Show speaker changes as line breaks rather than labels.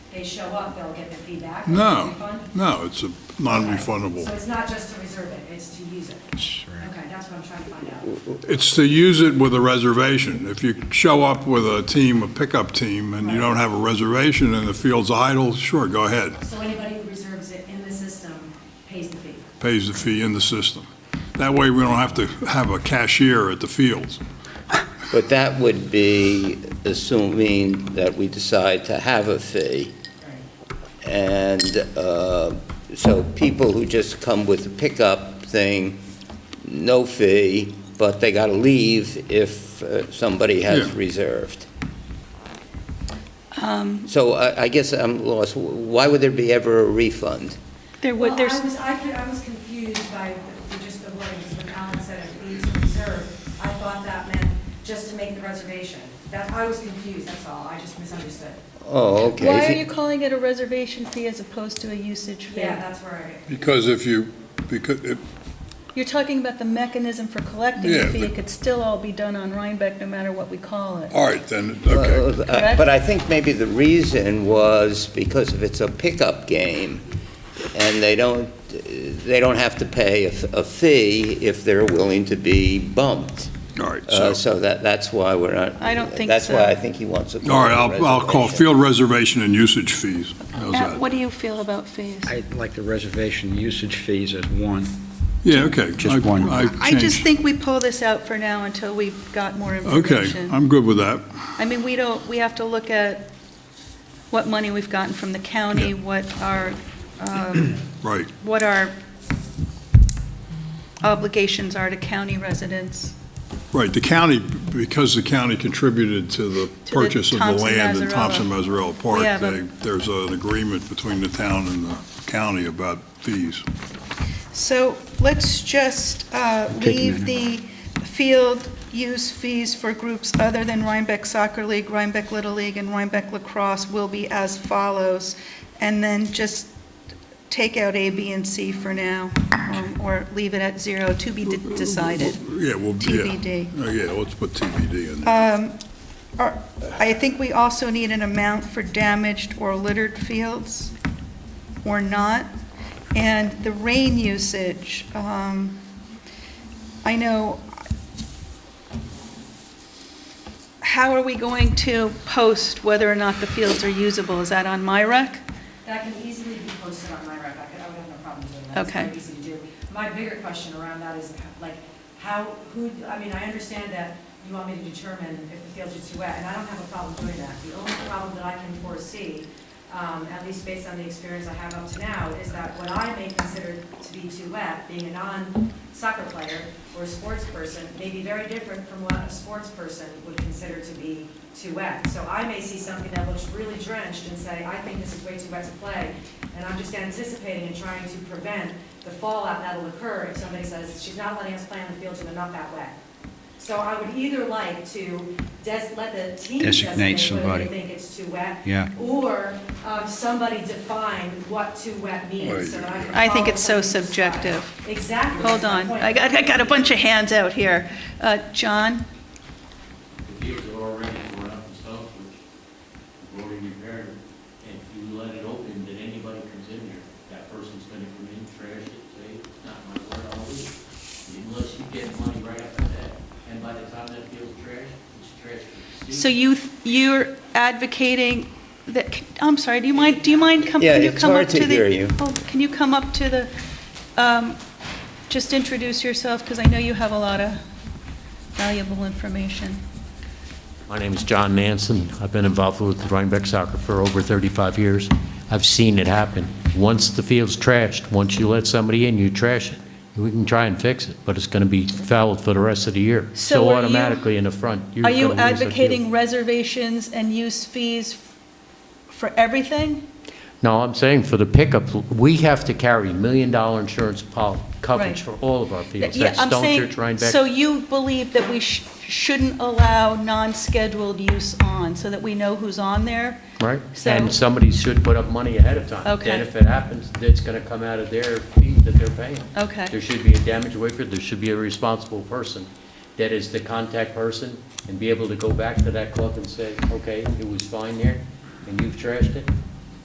they show up, they'll get the feedback? or the
No,
refund?
no, it's a
So
non-refundable.
it's not just to reserve it, it's to use it? Okay, that's what I'm trying to find out.
It's to use it with a reservation. If you show up with a team, a pickup team, and you don't have a reservation and the field's idle, sure, go ahead,
So anybody who reserves it in the system pays the fee?
pays the fee in the system. That way, we don't have to have a cashier at the fields.
But that would be assuming that we decide to have a fee. And uh, so people who just come with a pickup thing, no fee, but they got to leave if uh, somebody has
Yeah.
reserved.
Um,
So I I guess I'm lost. Why would there be ever a refund?
There
Well,
would,
I
there's,
was, I could- I was confused by the- the- just the wordings, when Alan said a fee to reserve, I thought that meant just to make the reservation. That, I was confused, that's all, I just misunderstood.
Oh, okay.
why are you calling it a reservation fee as opposed to a usage fee?
Yeah, that's where I,
Because if you, because, it-
You're talking about the mechanism for collecting
Yeah,
the fee.
but-
It could still all be done on Rhinebeck, no matter what we call it.
all right, then, okay.
Well, uh,
Correct?
But I think maybe the reason was because if it's a pickup game, and they don't, they don't have to pay a f- a fee if they're willing to be bumped.
All right, so,
Uh, So that, that's why we're not.
I don't think
That's
so.
why I think he wants to. call
all
it
right,
a
I'll, I'll call
reservation.
field reservation and usage fees. How's
Matt,
that?
what do you feel about fees?
I like the reservation usage fees as one.
Yeah, okay.
Just
I-
one.
I
I just
changed.
think we pull this out for now until we've got more
Okay,
information.
I'm good with that.
I mean, we don't, we have to look at what money we've gotten from the county, what our, um,
Right.
what our obligations are to county residents.
Right, the county, because the county contributed to the
the
purchase of the
Thompson
land in
Mazzarella.
Thompson Mazzarella
We have
Park,
a-
they- there's an agreement between the town and the county about fees.
So let's just uh,
Take a
leave the field use fees for groups other than Rhinebeck Soccer League, Rhinebeck Little League, and Rhinebeck Lacrosse will be as follows, and then just take out A, B, and C for now, um, or leave it at zero, to be de- decided.
Yeah, well, yeah.
TBD.
Uh, Yeah, let's put TBD in there.
Um, are- I think we also need an amount for damaged or littered fields, or not. And the rain usage, um, I know, how are we going to post whether or not the fields are usable? Is that on my rec?
that can easily be posted on my rep, I could- I would have no problem doing that. It's
Okay.
very easy to do. My bigger question around that is, like, how, who, I mean, I understand that you want me to determine if the fields are too wet, and I don't have a problem doing that. The only problem that I can foresee, um, at least based on the experience I have up to now, is that what I may consider to be too wet, being a non-soccer player or a sports person, may be very different from what a sports person would consider to be too wet. So I may see something that looks really drenched and say, I think this is way too wet to play, and I'm just anticipating and trying to prevent the fallout that'll occur if somebody says, she's not letting us play on the field, so they're not that wet. So I would either like to des, let the team designate
Designate
whether
somebody.
they think it's too wet.
Yeah.
Or, um, somebody define what too wet means, so that I can
I think
follow
it's so
somebody's style.
subjective.
Exactly.
Hold
that's my
on,
point.
I got, I got a bunch of hands out here. Uh, John?
The fields are already torn up and stuff, which we've already repaired. And if you let it open, then anybody comes in there, that person's gonna come in, trash it, say, it's not my word, I'll leave. Unless you get money right after that. And by the time that field's trashed, it's trash. for the
So
season.
you, you're advocating that, I'm sorry, do you mind, do you mind coming?
Yeah, it's hard to hear you.
oh, Can you come up to the, um, just introduce yourself, because I know you have a lot of valuable information.
My name is John Nansen. I've been involved with Rhinebeck Soccer for over 35 years. I've seen it happen. Once the field's trashed, once you let somebody in, you trash it. We can try and fix it, but it's going to be fouled for the rest of the year.
So
So
are you-
automatically in the front, you're
Are
going to
you
lose that field.
advocating reservations and use fees for everything?
No, I'm saying for the pickup, we have to carry million-dollar insurance pol- coverage for
Right.
all of our fields.
Yeah,
That's
I'm
Stone
saying-
Church, Rhinebeck.
So you believe that we sh- shouldn't allow non-scheduled use on, so that we know who's on there?
Right,
So-
and somebody should put up money ahead of time.
Okay.
Then if it happens, it's gonna come out of their fee that they're paying.
Okay.
There should be a damage waiver, there should be a responsible person that is the contact person and be able to go back to that club and say, okay, it was fine there, and you've trashed it,